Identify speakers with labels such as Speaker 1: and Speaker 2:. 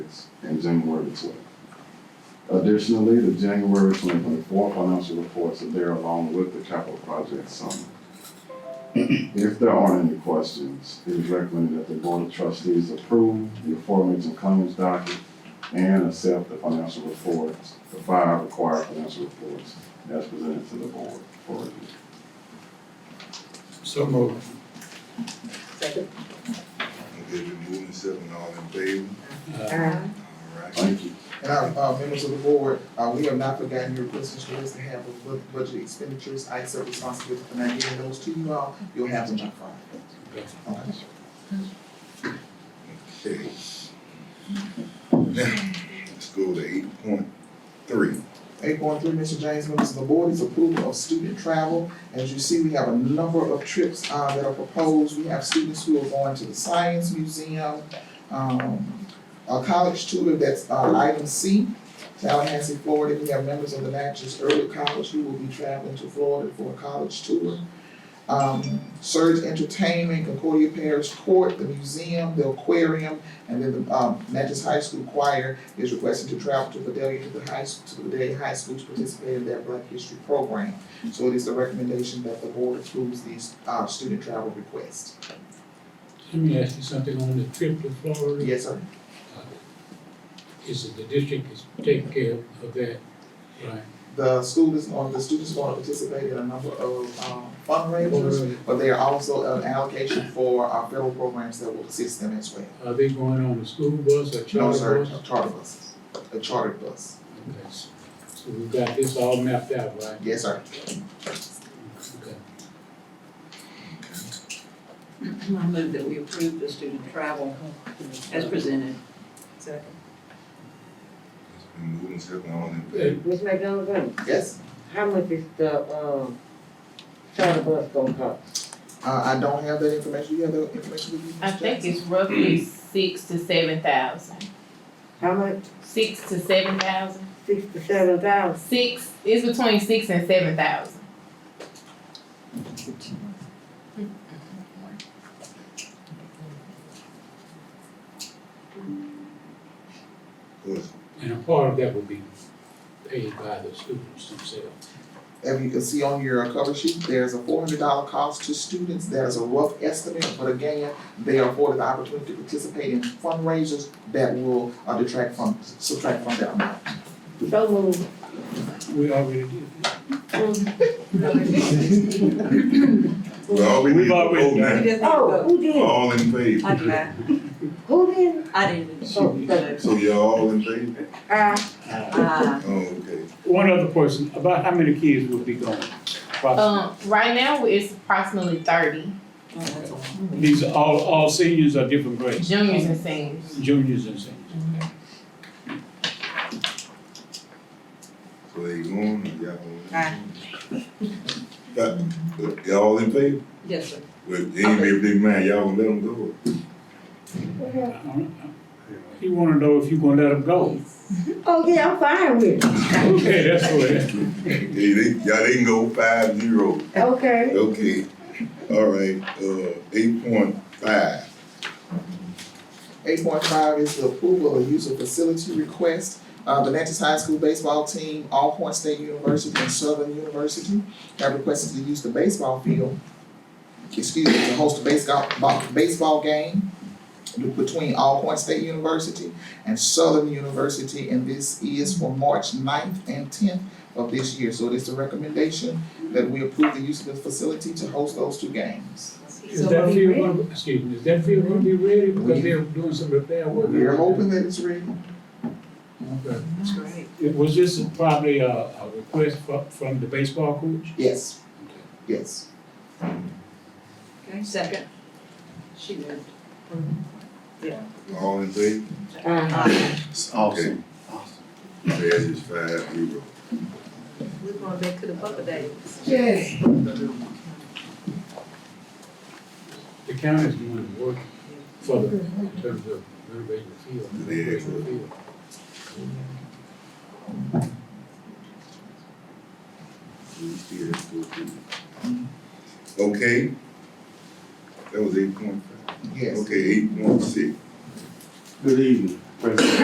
Speaker 1: minutes and January twelfth. Additionally, the January twenty twenty-four financial reports are there along with the capital project summary. If there aren't any questions, it is recommended that the board of trustees approve the aforementioned claims docket and accept the financial reports, the five required financial reports as presented to the board for review.
Speaker 2: So moved.
Speaker 3: Second.
Speaker 4: Okay, been moving and seven, all in favor?
Speaker 3: Aye.
Speaker 4: All right.
Speaker 1: Thank you.
Speaker 5: And our, uh, members of the board, uh, we have not forgotten your request to us to have a bu- budget expenditures, I accept responsibility for not giving those to you all, you'll have them on Friday. Okay.
Speaker 4: Okay. Now, let's go to eight point three.
Speaker 5: Eight point three, Mr. James, members of the board, is approval of student travel. As you see, we have a number of trips, uh, that are proposed. We have students who are going to the Science Museum, um, a college tour, that's, uh, item C, Tallahassee, Florida. We have members of the Natchez Early College who will be traveling to Florida for a college tour. Um, Surge Entertainment, Concordia Parish Court, the museum, the aquarium, and then the, um, Natchez High School Choir is requesting to travel to Vidalia to the high, to Vidalia High School to participate in their Black History Program. So it is the recommendation that the board approves these, uh, student travel requests.
Speaker 2: Let me ask you something on the trip to Florida. Uh,
Speaker 5: Yes, sir.
Speaker 2: Is it the district is taking care of that, right?
Speaker 5: The school is going, the students are going to participate in a number of, um, fundraisers, but they are also an allocation for, uh, federal programs that will assist them as well.
Speaker 2: Are they going on a school bus or
Speaker 5: No,
Speaker 2: charter
Speaker 5: sir,
Speaker 2: bus?
Speaker 5: charter buses, a chartered bus.
Speaker 2: Okay, So we've got this all mapped out, right?
Speaker 5: Yes, sir.
Speaker 2: Okay.
Speaker 3: I move that we approve the student travel as presented.
Speaker 6: Second.
Speaker 4: It's been moving and seven, all in
Speaker 2: Uh,
Speaker 4: favor?
Speaker 6: Ms. McDonald, Brown,
Speaker 5: Yes,
Speaker 6: how much is the, um, charter bus gonna cost?
Speaker 5: uh, I don't have that information. You have the information with you? Ms.
Speaker 7: I think
Speaker 5: Jackson?
Speaker 7: it's roughly six to seven thousand.
Speaker 6: How much?
Speaker 7: Six to seven thousand.
Speaker 6: Six to seven thousand?
Speaker 7: Six, it's between six and seven thousand.
Speaker 4: Yes.
Speaker 2: And a part of that will be paid by the students themselves.
Speaker 5: If you can see on your cover sheet, there's a four hundred dollar cost to students, that is a rough estimate, but again, they are afforded the opportunity to participate in fundraisers that will uh, detract from, subtract from that amount.
Speaker 6: So moved.
Speaker 2: We already did. Oh.
Speaker 4: Well, all we need
Speaker 2: We've
Speaker 4: to
Speaker 2: already
Speaker 4: vote
Speaker 2: done
Speaker 4: now.
Speaker 6: Oh, who did?
Speaker 4: All in favor?
Speaker 6: did. Who did?
Speaker 3: I didn't.
Speaker 6: Oh,
Speaker 4: So y'all all in favor?
Speaker 6: uh,
Speaker 3: Uh,
Speaker 4: Oh, okay.
Speaker 2: One other question, about how many kids will be going?
Speaker 7: Um, right now, it's approximately thirty,
Speaker 3: oh,
Speaker 2: These are all, all seniors or different grades?
Speaker 7: juniors and seniors.
Speaker 2: Juniors and seniors.
Speaker 4: So they going, and y'all.
Speaker 6: Aye.
Speaker 4: Got- Y'all all in favor?
Speaker 3: yes, sir.
Speaker 4: Well, they ain't made up their mind, y'all gonna let them go.
Speaker 2: I don't know. He wanna know if you gonna let them go.
Speaker 6: oh, yeah, I'm fine with it.
Speaker 2: Okay, that's what it is.
Speaker 4: Okay, they, y'all, they can go five zero.
Speaker 6: Okay.
Speaker 4: Okay, all right, uh, eight point five.
Speaker 5: Eight point five is the approval of use of facility request. Uh, the Natchez High School baseball team, All Point State University and Southern University have requested to use the baseball field. Excuse me, to host a baseball, bo- baseball game between All Point State University and Southern University. And this is for March 9th and tenth of this year. So it is the recommendation that we approve the use of the facility to host those two games.
Speaker 2: Is that field gonna, excuse me, is that field gonna be ready because they're doing some repair work?
Speaker 5: We're hoping that it's ready.
Speaker 2: Okay.
Speaker 3: That's great.
Speaker 2: It- Was this probably a, a request from, from the baseball coach?
Speaker 5: Yes, yes.
Speaker 3: Okay, second. She moved.
Speaker 4: All in favor?
Speaker 6: Uh,
Speaker 4: It's awesome. Pass is five zero.
Speaker 3: We're going back to the Bubba days.
Speaker 5: Yes.
Speaker 2: The county's doing the work for the, in terms of renovating the field. renovating the field.
Speaker 4: We still have to go through. Mm-hmm. Okay? That was eight point five.
Speaker 5: Yes.
Speaker 4: Okay, eight point six.
Speaker 1: Good evening.